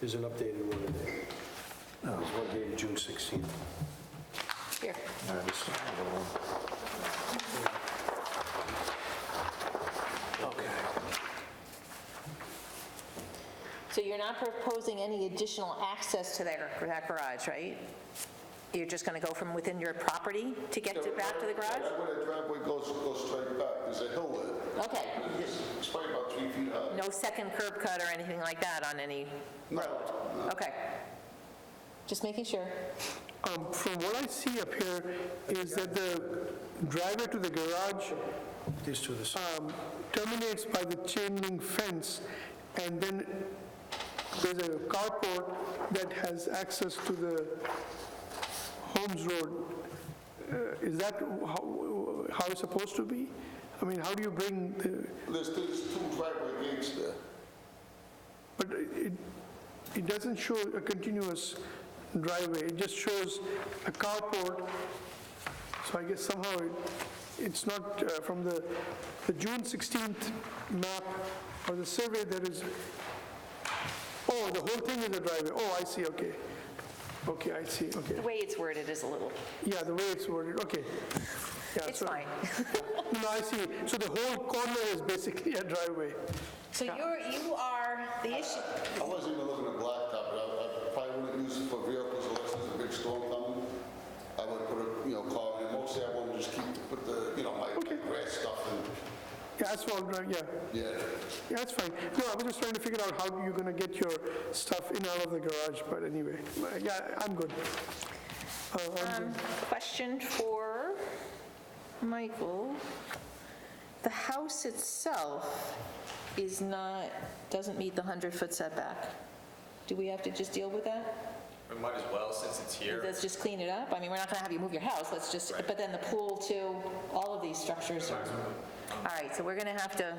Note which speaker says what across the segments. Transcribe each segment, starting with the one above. Speaker 1: There's an updated one in there. There's one dated June 16th.
Speaker 2: Here. So you're not proposing any additional access to their- that garage, right? You're just going to go from within your property to get to back to the garage?
Speaker 3: That way the driveway goes, goes straight back, there's a hill there.
Speaker 2: Okay.
Speaker 3: It's probably about three feet high.
Speaker 2: No second curb cut or anything like that on any,
Speaker 3: No.
Speaker 2: okay. Just making sure.
Speaker 4: Um, From what I see up here is that the driveway to the garage
Speaker 1: These two, this,
Speaker 4: um, terminates by the chain link fence, and then there's a carport that has access to the Holmes Road. Uh, Is that how how it's supposed to be? I mean, how do you bring, the?
Speaker 3: There's, there's two driveway gates there.
Speaker 4: but it, it doesn't show a continuous driveway, it just shows a carport, so I guess somehow it, it's not uh, from the, the June 16th map or the survey that is, oh, the whole thing is a driveway, oh, I see, okay. Okay, I see, okay.
Speaker 2: The way it's worded is a little,
Speaker 4: Yeah, the way it's worded, okay. Yeah,
Speaker 2: it's
Speaker 4: so-
Speaker 2: fine.
Speaker 4: No, I see, so the whole corner is basically a driveway.
Speaker 2: So you're, you are, the issue,
Speaker 3: I wasn't even looking at blacktop, but I, I probably wouldn't use it for vehicles unless there's a big storm coming. I would put a, you know, car in, mostly I wouldn't just keep, put the, you know, my my grass stuff in,
Speaker 4: Yeah, asphalt, drive- yeah.
Speaker 3: yeah.
Speaker 4: Yeah, that's fine. No, I was just trying to figure out how you're going to get your stuff in and out of the garage, but anyway, but yeah, I'm good. Uh, I'm
Speaker 2: Um,
Speaker 4: good.
Speaker 2: question for Michael. The house itself is not, doesn't meet the 100-foot setback. Do we have to just deal with that?
Speaker 5: We might as well, since it's here.
Speaker 2: Let's just clean it up? I mean, we're not going to have you move your house, let's just, but then the pool too, all of these structures are... All right, so we're going to have to,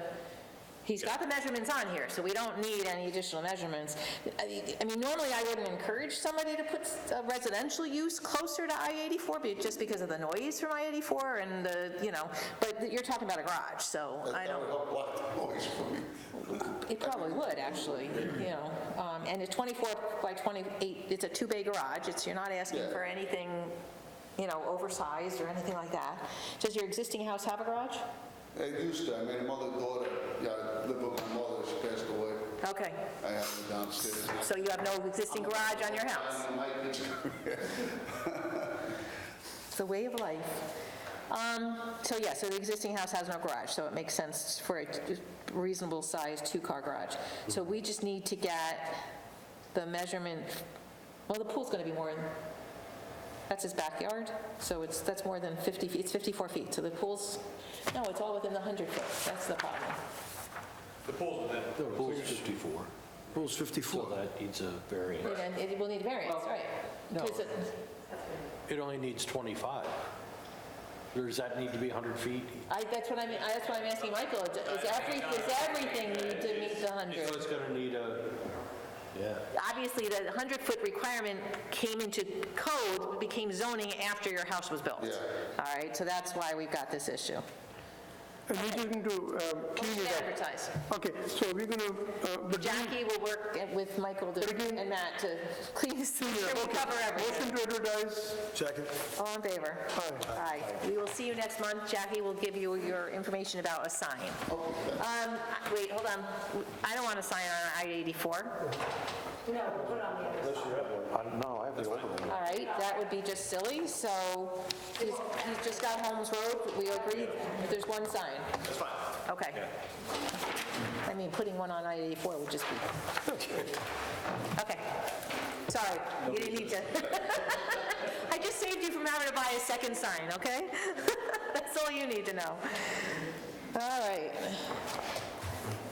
Speaker 2: he's got the measurements on here, so we don't need any additional measurements. I mean- I mean, normally I wouldn't encourage somebody to put a residential use closer to I-84, but just because of the noise from I-84 and the, you know, but you're talking about a garage, so I
Speaker 3: That
Speaker 2: don't...
Speaker 3: would help block the noise for me.
Speaker 2: It probably would, actually, you know, Um, and a 24 by 28, it's a two-bay garage, it's, you're not asking for anything, you know, oversized or anything like that. Does your existing house have a garage?
Speaker 3: It used to, I mean, mother, daughter, yeah, I lived with my mother, she passed away,
Speaker 2: Okay,
Speaker 3: I had her downstairs. and I-
Speaker 2: so you have no existing garage on your house?
Speaker 3: I might get-
Speaker 2: It's the way of life. Um, So, yeah, so the existing house has no garage, so it makes sense for a reasonable-sized two-car garage. So we just need to get the measurement, well, the pool's going to be more, than- that's his backyard, so it's, that's more than 50 feet, it's 54 feet, so the pool's, no, it's all within the 100 foot, that's the problem.
Speaker 5: The pool's within.
Speaker 6: The pool's 54,
Speaker 1: rules 54.
Speaker 6: so that needs a variance.
Speaker 2: And it will need variance, right?
Speaker 6: no.
Speaker 2: 'Cause it-
Speaker 6: It only needs 25. Or Does that need to be 100 feet?
Speaker 2: I, that's what I'm, I- that's why I'm asking Michael, is every- is everything need to meet the 100?
Speaker 6: So it's going to need a, yeah.
Speaker 2: obviously, the 100-foot requirement came into code, became zoning after your house was built. All right, so that's why we've got this issue.
Speaker 4: And we're just going to um, clean
Speaker 2: Motion to
Speaker 4: it
Speaker 2: Advertise.
Speaker 4: up. Okay, so we're uh, going to, but
Speaker 2: Jackie will work with Michael to-
Speaker 4: Again-
Speaker 2: and Matt to clean this, sure we cover everything.
Speaker 4: motion to advertise,
Speaker 1: Second?
Speaker 2: All in favor? Aye. We will see you next month. Jackie will give you your information about a sign. Um, Wait, hold on. I don't want to sign on I-84.
Speaker 6: No, I have to open
Speaker 2: All right, that would be just silly, so he's he's just got Holmes Road, we agree, there's one sign. That's fine. Okay. I mean, putting one on I-84 would just be... Okay, sorry, you didn't need to. I just saved you from having to buy a second sign, okay? That's all you need to know. All right.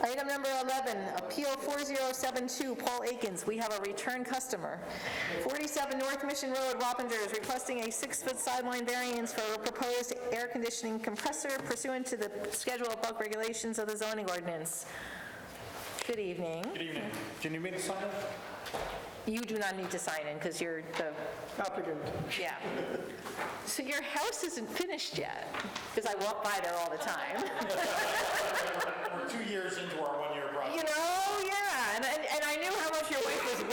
Speaker 2: Item number 11, Appeal 4072, Paul Akins, we have a return customer. 47 North Mission Road, Wappinger is requesting a six-foot sideline variance for a proposed air conditioning compressor pursuant to the schedule of bulk regulations of the zoning ordinance. Good evening.
Speaker 5: Good evening. Can you make the sign up?
Speaker 2: You do not need to sign in because you're the,
Speaker 4: applicant.
Speaker 2: yeah. So your house isn't finished yet, because I walk by there all the time.
Speaker 5: We're two years into our one-year project.
Speaker 2: You know, yeah,